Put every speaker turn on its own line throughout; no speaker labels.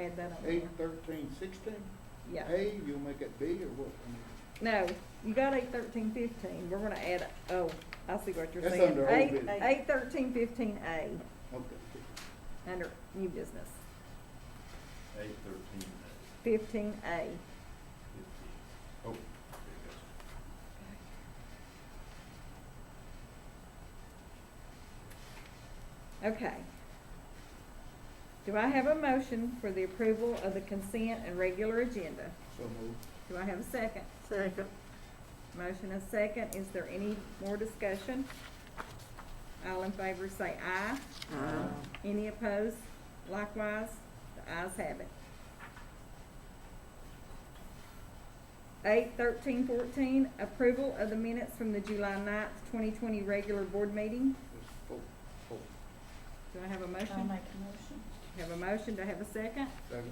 gave that up.
Eight, thirteen, sixteen?
Yeah.
A, you'll make it B or what?
No, you got eight thirteen fifteen, we're gonna add, oh, I see what you're
That's
saying.
under old
Eight-
business.
Eight thirteen fifteen A,
Okay.
under new business,
Eight thirteen
fifteen A.
fifteen. Oh, there it goes.
Okay. Do I have a motion for the approval of the consent and regular agenda?
So moved.
Do I have a second?
Second.
Motion and second, is there any more discussion? All in favor say aye.
Uh,
Any opposed? Likewise, the ayes have it. Eight thirteen fourteen, approval of the minutes from the July ninth, twenty twenty regular board meeting.
That's four, four,
Do I have a motion?
Um,
I'll make a motion.
Have a motion, do I have a second?
seven.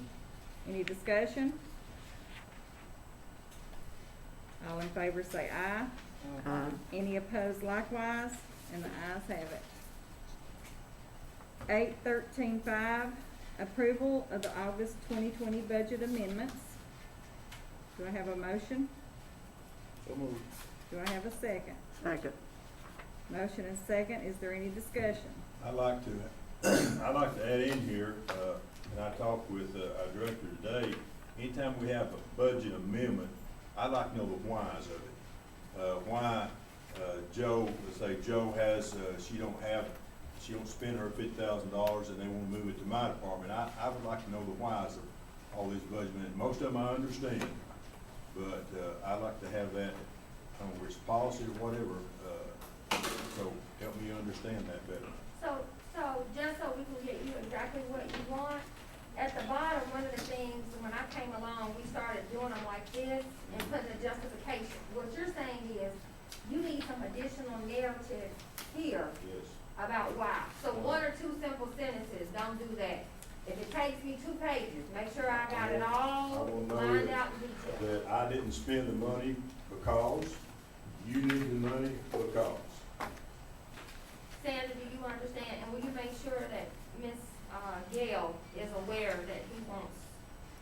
Any discussion? All in favor say aye.
Uh-huh.
Aye.
Any opposed likewise, and the ayes have it. Eight thirteen five, approval of the August twenty twenty budget amendments. Do I have a motion?
So moved.
Do I have a second?
Second.
Motion and second, is there any discussion?
I'd like to, I'd like to add in here, uh, and I talked with uh, our director today, anytime we have a budget amendment, I'd like to know the whys of it. Uh, why, uh, Joe, let's say Joe has, uh, she don't have, she don't spend her fifty thousand dollars and they wanna move it to my department. I, I would like to know the whys of all these budget amendments. Most of them I understand, but, uh, I'd like to have that, I don't know, whether it's policy or whatever, uh, so help me understand that better.
So, so just so we can get you exactly what you want, at the bottom, one of the things, when I came along, we started doing them like this and putting a justification. What you're saying is, you need some additional narrative here
Yes.
about why. So one or two simple sentences, don't do that. If it takes me two pages, make sure I got it
I
all
will know
lined
it.
out in detail.
That I didn't spend the money because, you need the money because.
Sandra, do you understand, and will you make sure that Ms. uh, Gail is aware that he wants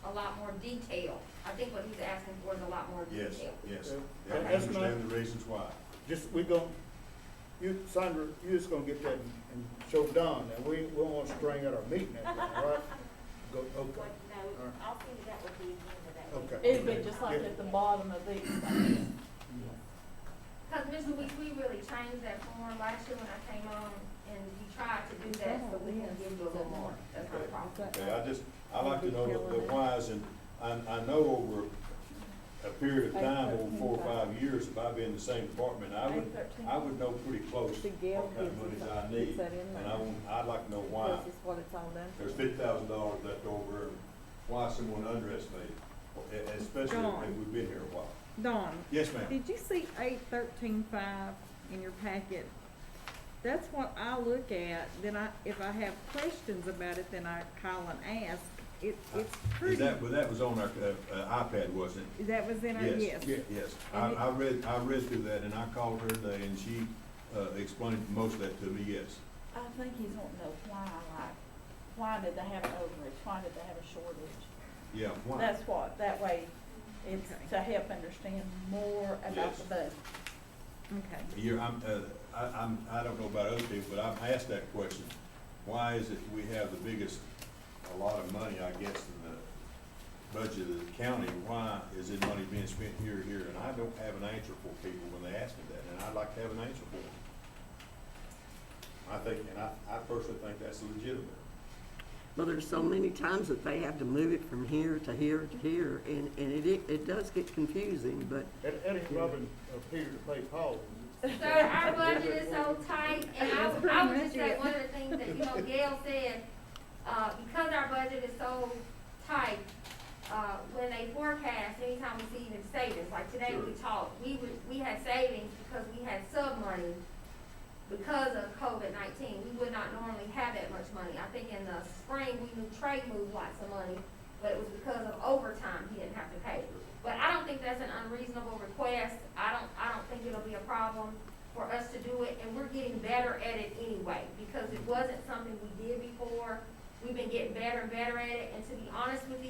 a lot more detail? I think what he's asking for is a lot more
Yes,
detail.
yes.
Yeah.
Yeah, I
That's my-
understand the reasons why.
Just, we gon' you, Sandra, you just gonna get that and and show Don, and we, we won't string at our meeting, that day, all right? Go, okay,
No, I'll see that would be the end of that.
okay.
It'd be just like at the bottom of these, like this.
Because Ms. Louise, we really changed that form last year when I came on, and we tried to do that, so we can give you a little more, that's not a problem.
Okay, I just, I like to know the- the whys, and I, I know over a period of time, over four or five years, if I've been in the same department, I would, I would know pretty close
The Gale
what kind of
gives
monies
us-
I
puts
need.
that in
And
there.
I, want- I'd like to know why.
This is what it's all done.
There's fifty thousand dollars left over, and why someone underestimated, e- especially if
Gone.
we've been here a while.
Dawn,
Yes, ma'am.
did you see eight thirteen five in your packet? That's what I look at, then I, if I have questions about it, then I call and ask. It, it's
Is
pretty,
that, well, that was on our, uh, uh, iPad, wasn't it?
that was in our, yes.
Yes, yes. I,
And it-
I read, I read through that, and I called her today, and she, uh, explained most of that to me, yes.
I think he's wanting to know why, like, why did they have an overage, why did they have a shortage?
Yeah, why?
That's what, that way, it's
Okay.
to help understand more about
Yes.
the budget.
Okay.
You're, I'm, uh, I, I'm, I don't know about other people, but I've asked that question. Why is it we have the biggest, a lot of money, I guess, in the budget of the county? Why is it money being spent here, here? And I don't have an answer for people when they ask me that, and I'd like to have an answer for them. I think, and I, I personally think that's legitimate.
Well, there's so many times that they have to move it from here to here to here, and, and it, it does get confusing, but
That, that ain't rubbing, uh, Peter to play Paul.
Sir, our budget is so tight, and I would, I would just
That's pretty
say,
much it.
one of the things that, you know, Gail said, uh, because our budget is so tight, uh, when they forecast, anytime we see even savings, like today we
Sure.
talked, we would, we had savings because we had sub money because of COVID nineteen, we would not normally have that much money. I think in the spring, we knew trade moved lots of money, but it was because of overtime, he didn't have to pay. But I don't think that's an unreasonable request, I don't, I don't think it'll be a problem for us to do it, and we're getting better at it anyway, because it wasn't something we did before. We've been getting better and better at it, and to be honest with you,